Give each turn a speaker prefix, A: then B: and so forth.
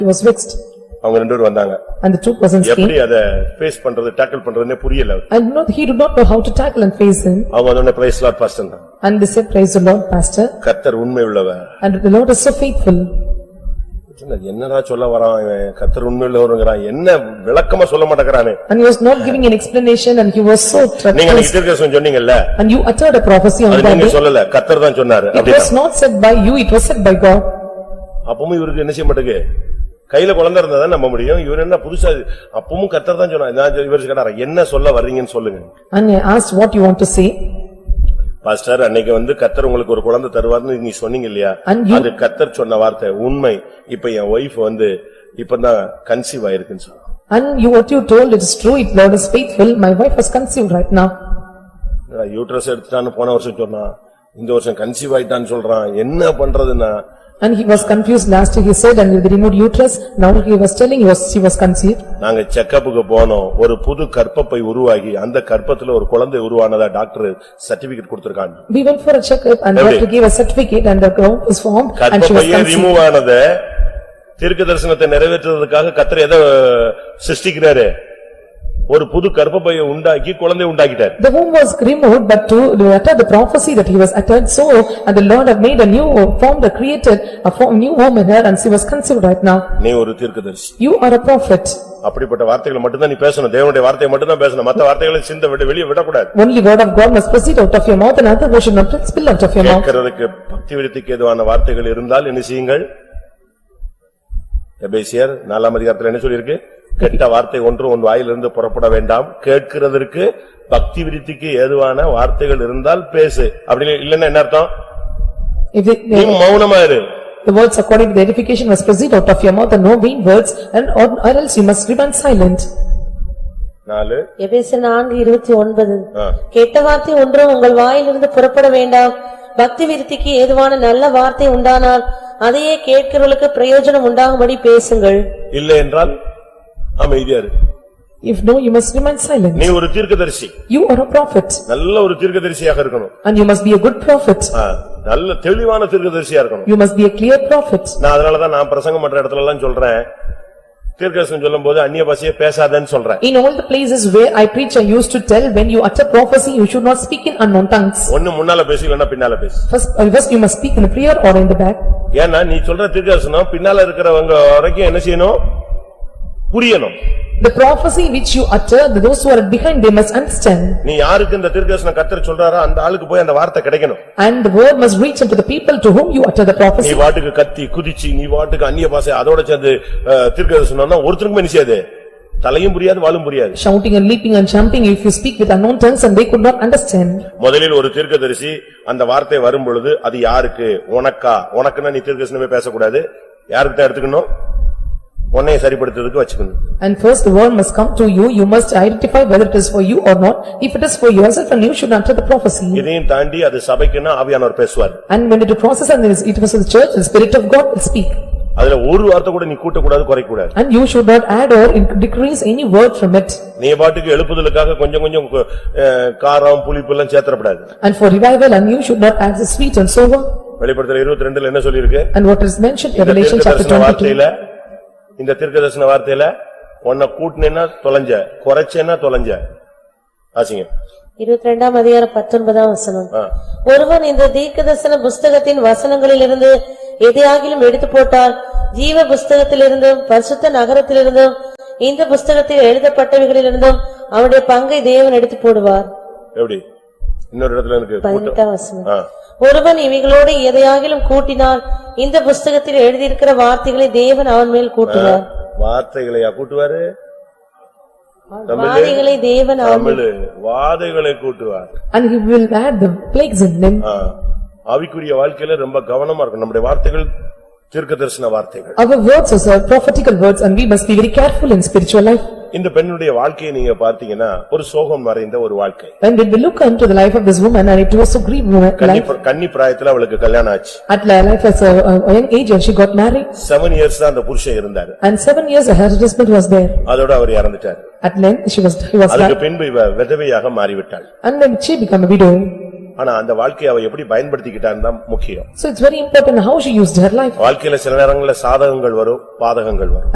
A: He was vexed
B: அவங்க ரெண்டு பேரும் வந்தாங்க
A: and the two persons
B: எப்படி
A: came
B: அத ஃபேஸ் பண்றது டேக்கிள் பண்றதுன்னே புரியல அவருக்கு.
A: and not, he did not know how to tackle and face him
B: அவங்க வந்தோடனே பிரைஸ் லார்ட் பாஸ்டன் தான்
A: and they said praise the Lord pastor
B: கர்த்தர் உண்மை உள்ளவர்
A: and the Lord is so faithful
B: சொன்னாரு, என்னடா சொல்ல வரான் இவன்? கர்த்தர் உண்மை உள்ளவருங்கிறான் என்ன விளக்கமா சொல்ல மாட்டேங்கிறானே
A: and he was not giving an explanation and he was so
B: நீங்க
A: treacherous
B: திருக்கசம் சொன்னீங்கல்ல
A: and you uttered a prophecy on
B: அது
A: that
B: நீங்க
A: day.
B: சொல்லல கர்த்தர் தான் சொன்னாரு
A: It was
B: அப்படின்னா.
A: not said by you, it was said by God
B: அப்பவும் இவருக்கு என்ன செய்ய மாட்டேங்கு கையில குழந்தை இருந்தா தான் நம்ப முடியும் இவர் என்ன புதுசா இது? அப்பவும் கர்த்தர் தான் சொன்னாரு நான் இவர் கேட்டாரா என்ன சொல்ல வர்றீங்கன்னு சொல்லுங்க
A: and I asked what you want to say
B: pastor அன்னைக்கு வந்து கர்த்தர் உங்களுக்கு ஒரு குழந்தை தருவார்னு நீ சொன்னீங்க இல்லையா
A: And you-
B: அது கர்த்தர் சொன்ன வார்த்தை உண்மை இப்ப என் ஒய்ஃப் வந்து இப்பதான் கன்சீவ் ஆயிருக்குன்னு சொன்னா
A: and you what you told it is true, it Lord is faithful, my wife was conceived right now
B: uterus எடுத்துட்டான்னு போன வருஷம் சொன்னா இந்த வருஷம் கன்சீவ் ஆயிட்டான்னு சொல்றான் என்ன பண்றதுன்னா
A: and he was confused last year he said and they removed uterus, now he was telling he was she was conceived
B: நாங்க செக்கப்புக்கு போனோம் ஒரு புது கற்பப்பை உருவாகி அந்த கற்பத்துல ஒரு குழந்தை உருவானதா டாக்டர் சர்டிபிகேட் கொடுத்திருக்காங்க
A: We went for a checkup and
B: Every
A: doctor gave a certificate and the ground is formed and she was
B: கற்பப்பையே
A: conceived.
B: ரிமூவ் ஆனத தீர்க்க தரிசனத்தை நிறைவேற்றுவதற்காக கர்த்தர் எதை சிருஷ்டிக்கிறாரு ஒரு புது கற்பப்பையை உண்டாக்கி குழந்தை உண்டாக்கிட்டார்
A: The womb was removed but to utter the prophecy that he was uttered so and the Lord have made a new form, that created a form, new womb in her and she was conceived right now.
B: நீ ஒரு தீர்க்கதரிசி
A: You are a prophet.
B: அப்படிப்பட்ட வார்த்தைகளை மட்டும்தான் நீ பேசணும் தேவனுடைய வார்த்தையை மட்டும்தான் பேசணும் மத்த வார்த்தைகளை சிந்த விட்டு வெளியே விடக்கூடாது
A: Only word of God must proceed out of your mouth and other word should not spill out of your mouth.
B: கேட்கறதுக்கு பக்தி விருத்திக்கு எதுவான வார்த்தைகள் இருந்தால் என்ன செய்யுங்கள் எபேசியர் நாலாம் அதிகாரத்துல என்ன சொல்லிருக்கு கெட்ட வார்த்தை ஒன்று உன் வாயிலிருந்து புறப்பட வேண்டாம் கேட்கிறதற்கு பக்தி விருத்திக்கு ஏதுவான வார்த்தைகள் இருந்தால் பேசு அப்படி இல்லன்னா என்ன அர்த்தம்
A: If the-
B: நீ
A: the-
B: மௌனமா இரு
A: the words according to the edification must proceed out of your mouth and no vain words and or or else you must remain silent.
B: நாலு
C: எபேசர் நான்கு இருபத்தி ஒன்பது
B: ஆ.
C: கெட்ட வார்த்தை ஒன்றும் உங்கள் வாயிலிருந்து புறப்பட வேண்டாம் பக்தி விருத்திக்கு ஏதுவான நல்ல வார்த்தை உண்டானால் அதையே கேட்கிறவர்களுக்கு பிரயோஜனம் உண்டாகும்படி பேசுங்கள்
B: இல்லை என்றால் அமைதியா இரு
A: If no, you must remain silent.
B: நீ ஒரு தீர்க்கதரிசி
A: You are a prophet
B: நல்ல ஒரு தீர்க்கதரிசியாக இருக்கணும்
A: and you must be a good prophet.
B: ஆ, நல்ல தெளிவான தீர்க்கதரிசியா இருக்கணும்
A: You must be a clear prophet.
B: நான் அதனாலதான் நான் பிரசங்கம் பண்ற இடத்துல எல்லாம் சொல்றேன் தீர்க்கதரிசனம் சொல்லும்போது அந்நிய பாஷையே பேசாதேன்னு சொல்றேன்
A: In all the places where I preach, I used to tell, when you utter prophecy, you should not speak in unknown tongues.
B: ஒண்ணு முன்னால பேசு இல்லன்னா பின்னால பேசு
A: First, uh, first you must speak in the prayer or in the back.
B: ஏன்னா நீ சொல்ற தீர்க்கதரிசனம் பின்னால இருக்கிறவங்க வரைக்கும் என்ன செய்யணும் புரியணும்
A: The prophecy which you utter, those who are behind, they must understand.
B: நீ யாருக்கு இந்த தீர்க்கதரிசனம் கத்தர் சொல்றாரோ அந்த ஆளுக்கு போய் அந்த வார்த்தை கிடைக்கணும்
A: And the word must reach unto the people to whom you utter the
B: நீ
A: prophecy.
B: வாட்டுக்கு கத்தி குதிச்சு நீ வாட்டுக்கு அந்நிய பாஷை அதோட சேர்ந்து அஹ், தீர்க்கதரிசனம்னா ஒருத்தருக்குமே என்ன செய்யாது தலையும் புரியாது வாலும் புரியாது
A: Shouting and leaping and jumping, if you speak with unknown tongues and they could not understand.
B: முதலில் ஒரு தீர்க்கதரிசி அந்த வார்த்தை வரும்பொழுது அது யாருக்கு உனக்கா உனக்குன்னா நீ தீர்க்கதரிசனமே பேசக்கூடாது யாருக்கிட்ட எடுத்துக்கணும் உன்னைய சரிப்படுத்துறதுக்கு வச்சுக்கணும்
A: And first the word must come to you, you must identify whether it is for you or not. If it is for yourself and you should utter the prophecy.
B: இதையும் தாண்டி அது சபைக்குன்னா ஆவியானவர் பேசுவார்
A: And when it crosses and it is- it was in the church, the spirit of God will speak.
B: அதுல ஒரு வார்த்தை கூட நீ கூட்டக்கூடாது குறைக்கூடாது
A: And you should not add or inc- decrease any word from it.
B: நீ பாட்டுக்கு எழுப்புதலுக்காக கொஞ்சம் கொஞ்சம் கு- அஹ், காரம் புளிப்பு எல்லாம் சேர்த்தப்படாது
A: And for revival, and you should not add the sweet and sober.
B: வெளிப்படுத்தல இருபத்தி ரெண்டுல என்ன சொல்லிருக்கு
A: And what is mentioned in
B: இந்த
A: Revelation chapter
B: தீர்க்கதரிசன
A: twenty-two.
B: வார்த்தையில இந்த தீர்க்கதரிசன வார்த்தையில உன்னை கூட்டினேன்னா தொலைஞ்ச குறைச்சேன்னா தொலைஞ்ச ஆசிங்க
C: இருபத்தி ரெண்டாம் அதிகாரம் பத்தொன்பதாம் வசனம்
B: ஆ.
C: ஒருவன் இந்த தீர்க்கதரிசன புஸ்தகத்தின் வசனங்களிலிருந்து எதையாகிலும் எடுத்து போட்டால் ஜீவ புஸ்தகத்திலிருந்தும் பரிசுத்த நகரத்திலிருந்தும் இந்த புஸ்தகத்தில் எழுதப்பட்டவைகளிலிருந்தும் அவனுடைய பங்கை தேவன் எடுத்து போடுவார்
B: எப்படி இன்னொரு இடத்துல இருக்கு கூட்டம்.
C: பதினெட்டாம் வசனம்
B: ஆ.
C: ஒருவன் இவைகளோடு எதையாகிலும் கூட்டினால் இந்த புஸ்தகத்தில் எழுதியிருக்கிற வார்த்தைகளை தேவன் அவன் மேல் கூட்டுவார்
B: வார்த்தைகளையா கூட்டுவாரு தமிழ்
C: வாதைகளை தேவன் அவன்
B: Tamil வாதைகளை கூட்டுவார்
A: And he will add the plagues in them.
B: ஆ. ஆவிக்குரிய வாழ்க்கையில ரொம்ப கவனமா இருக்கும் நம்முடைய வார்த்தைகள் தீர்க்கதரிசன வார்த்தைகள்
A: Our words are prophetical words and we must be very careful in spiritual life.
B: இந்த பெண்ணுடைய வாழ்க்கையை நீங்க பார்த்தீங்கன்னா ஒரு சோகம் மறைந்த ஒரு வாழ்க்கை
A: And when we look unto the life of this woman and it was a grief woman
B: கன்னி
A: life.
B: பிர- கன்னி பிராயத்துல அவளுக்கு கல்யாணம் ஆச்சு
A: At li- life as a a- a young age and she got married.
B: Seven years தான் அந்த புருஷன் இருந்தாரு
A: And seven years her husband was there.
B: அதோட அவர் இறந்துட்டார்
A: At length, she was, he was
B: அதுக்கு
A: died.
B: பின்பு இவ விதவையாக மாறிவிட்டாள்
A: And then she became a widow.
B: ஆனா அந்த வாழ்க்கையை அவ எப்படி பயன்படுத்திக்கிட்டான்னு தான் முக்கியம்
A: So it's very important how she used her life.
B: வாழ்க்கையில சில நேரங்கள்ல சாதகங்கள் வரும் பாதகங்கள் வரும்